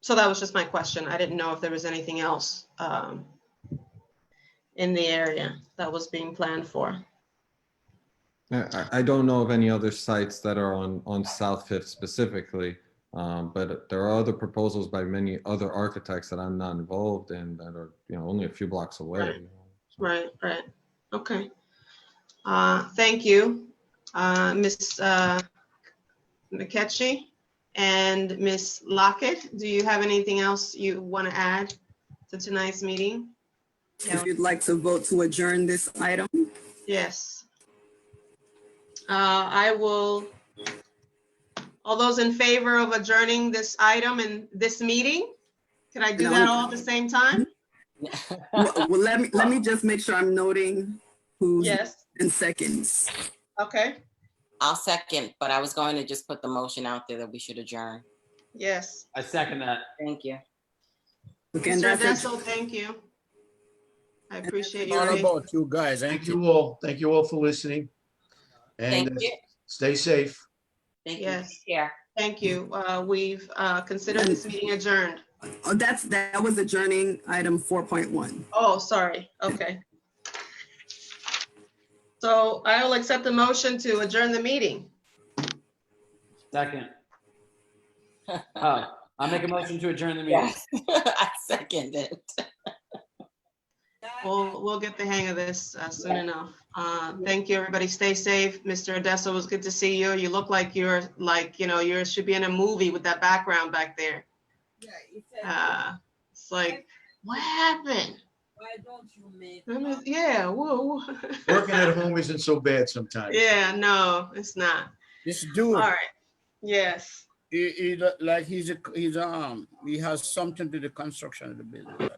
so that was just my question. I didn't know if there was anything else um, in the area that was being planned for. I, I I don't know of any other sites that are on, on South Fifth specifically. Um, but there are other proposals by many other architects that I'm not involved in that are, you know, only a few blocks away. Right. Right, right. Okay. Uh, Thank you, Uh, Ms. uh, McKechnie and Ms. Lockett. Do you have anything else you want to add to tonight's meeting? If you'd like to vote to adjourn this item, Yes. Uh, I will, all those in favor of adjourning this item and this meeting? Can I do that all at the same time? well, well, let me, let me just make sure I'm noting who's Yes, in seconds. okay, I'll second, but I was going to just put the motion out there that we should adjourn. yes. I second that. Thank you. Okay, and Mr. that's, Adesso, thank you. I appreciate your. All about you guys. Thank Thank you. you all. Thank you all for listening. Thank And uh, you. stay safe. Thank you. Yes. Take care. Thank you. Uh, We've uh, considered this meeting adjourned. oh, that's, that was adjourning item four point one. Oh, sorry. Okay. So I will accept the motion to adjourn the meeting. Second. Oh, I'll make a motion to adjourn the meeting. Yes, I second it. We'll, we'll get the hang of this uh, soon enough. Uh, Thank you, everybody. Stay safe. Mr. Odessa, it was good to see you. You look like you're, like, you know, you should be in a movie with that background back there. Uh, It's like, what happened? I'm just- Yeah, whoa. Working at home isn't so bad sometimes. Yeah, no, it's not. This All dude, right. Yes. he, he, look like he's, a- he's, um, he has something to the construction of the building.